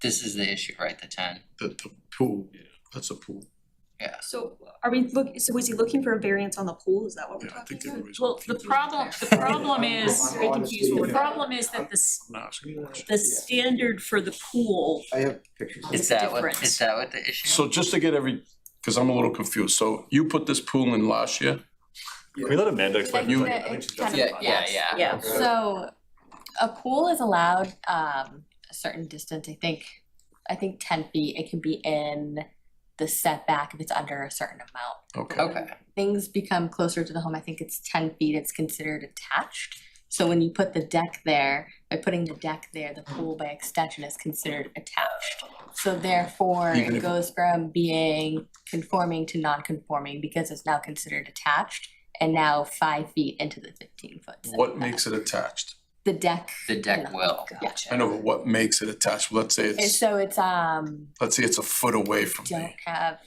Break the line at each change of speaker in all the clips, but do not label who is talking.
This is the issue, right, the ten?
the, the pool, that's a pool.
So are we look, so is he looking for a variance on the pool? Is that what we're
Yeah, I
talking
think they
about?
were.
Well, the problem, the problem is,
Very confused
the
with what-
problem is that the, s-
I'm not asking a question.
the standard for the pool
I have pictures.
Is that what,
difference.
is that what the issue?
So just to get every, cause I'm a little confused, so you put this pool in last year,
Can we let Amanda
I
explain?
think
You-
that
I think
it's
she's got
kind
some
of-
thoughts.
Yeah, yeah, yeah.
Yeah.
So a pool is allowed um a certain distance, I think, I think ten feet, it can be in the setback if it's under a certain amount.
okay,
Okay,
Things become closer to the home, I think it's ten feet, it's considered attached. So when you put the deck there, by putting the deck there, the pool by extension is considered attached. So therefore,
Even
it
if-
goes from being conforming to non-conforming because it's now considered attached and now five feet into the fifteen foot.
what
setback.
makes it attached?
The deck.
the deck will.
I know, but what makes it attached, let's say
And
it's,
so it's, um,
let's say it's a foot away from
don't
me,
have,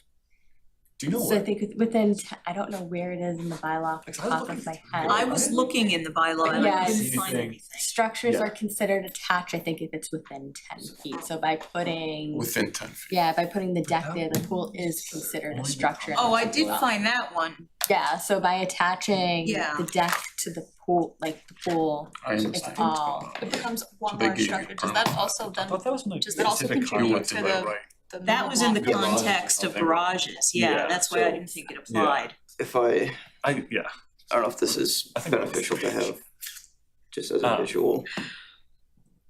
do you know
so I
what?
think with- within, t- I don't know where it is in the bylaw off the
It's hard
top
looking
of my
through here.
head.
I was looking in the bylaw and I
Yes.
couldn't find
Anything.
anything.
Structures
Yeah.
are considered attached, I think, if it's within ten feet, so by putting,
Within ten feet,
yeah, by putting the deck there, the pool is considered a structure.
Oh, I did find that one.
Yeah, so by attaching
Yeah.
the deck to the pool, like the pool,
I
it's
understand.
all,
It becomes one
They
large
gave you
structure. Does
permit.
that also
I
then,
thought that was in the
does that also
specific
You
contribute
went
to
to
the?
that, right,
the
That was in the
minimum lot?
Garages,
context of
something.
garages,
Yeah.
yeah, that's why I
So-
didn't think it applied.
If I,
I, yeah,
I don't know if this is
I think we're on the
beneficial to
same page.
have, just as a
Um,
visual.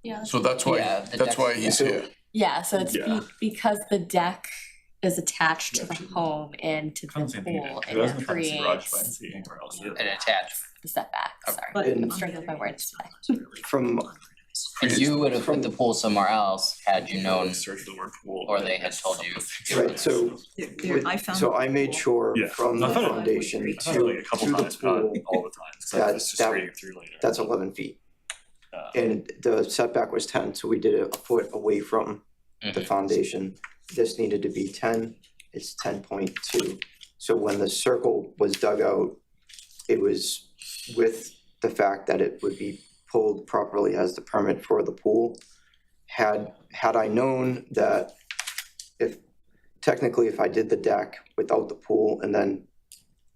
Yeah.
so that's why,
Yeah, the
that's
deck-
why he's
yeah.
here,
yeah, so it's
Yeah.
be- because the deck is attached to the home and to
I don't
the
think
pool,
it
it
doesn't come to garage, but I didn't
creates
see it anywhere else.
An attachment.
the setback,
Okay.
sorry.
But
And-
on the
Struggling with my
other hand,
words today.
it's really
From-
unorganized.
And you would have put the pool somewhere else had you known,
Search the word pool.
or they had told you.
Right, so
There- there- I found.
So I made sure
Yeah.
from the
I thought it-
foundation to,
I thought it like a couple
to the
times, not
pool,
all the time, so
That-
I was just
that-
reading through later.
that's eleven feet.
Uh,
And the setback was ten, so we did it a foot away from the
Mhm.
foundation. This needed to be ten, it's ten point two. So when the circle was dug out, it was with the fact that it would be pulled properly as the permit for the pool. Had, had I known that if, technically if I did the deck without the pool and then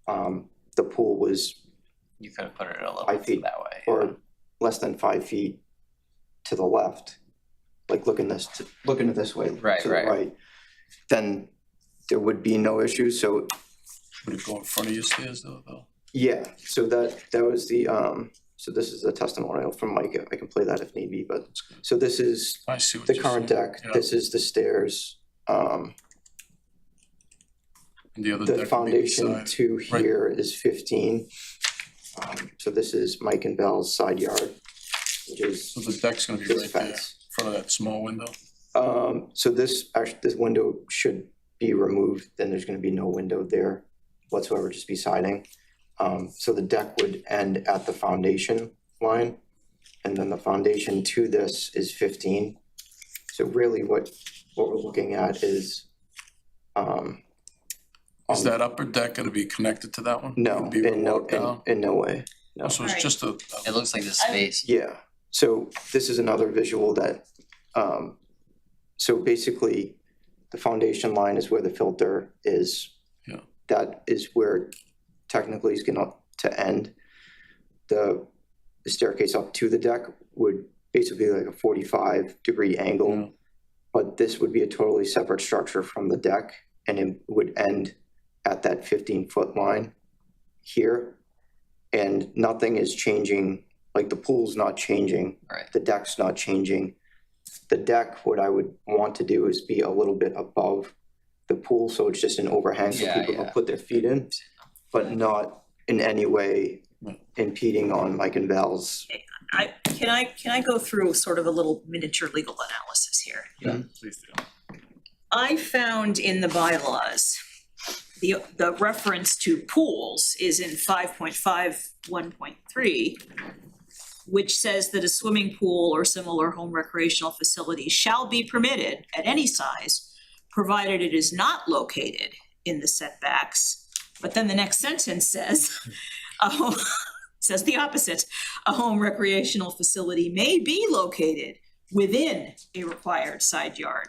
um, the pool was
You could have put it a little
Five
bit
feet
that way.
or less than five feet to the left, like looking this, looking this way,
Right,
to the
right.
right, then there would be no issue, so,
would it go in front of your stairs though, though?
yeah, so that, that was the, um, so this is a testimonial from Micah, I can play that if need be, but, so this is
I see what
the
you're saying.
current deck,
Yeah.
this is the stairs, um,
And the other deck
the
would be
foundation
beside.
to
right.
here is fifteen. Um, so this is Mike and Belle's side yard, which is
So the deck's gonna be
this
right there, in
fence.
front of that small window.
Um, so this, actually, this window should be removed, then there's gonna be no window there whatsoever, just be siding. Um, so the deck would end at the foundation line, and then the foundation to this is fifteen. So really what, what we're looking at is, um.
Is
um,
that upper deck gonna be connected to that one?
No,
It'd Be
in no,
walk
in,
down?
in no way,
Oh, So it's
Right.
just a,
It looks like the space.
yeah, so this is another visual that, um, so basically, the foundation line is where the filter is.
Yeah.
That is where technically is gonna to end. The the staircase up to the deck would basically be like a forty-five degree
Yeah.
angle. But this would be a totally separate structure from the deck and it would end at that fifteen foot line here. And nothing is changing, like the pool's not changing.
Right.
The deck's not changing. The deck, what I would want to do is be a little bit above the pool, so it's just an overhang so
Yeah,
people
yeah.
can put their feet in. But not in any way
Right.
impeding on Mike and Val's.
I, can I, can I go through sort of a little miniature legal analysis here?
Yeah.
Please do.
I found in the bylaws, the, the reference to pools is in five point five, one point three, which says that a swimming pool or similar home recreational facility shall be permitted at any size, provided it is not located in the setbacks. But then the next sentence says, a home, says the opposite. A home recreational facility may be located within a required side yard.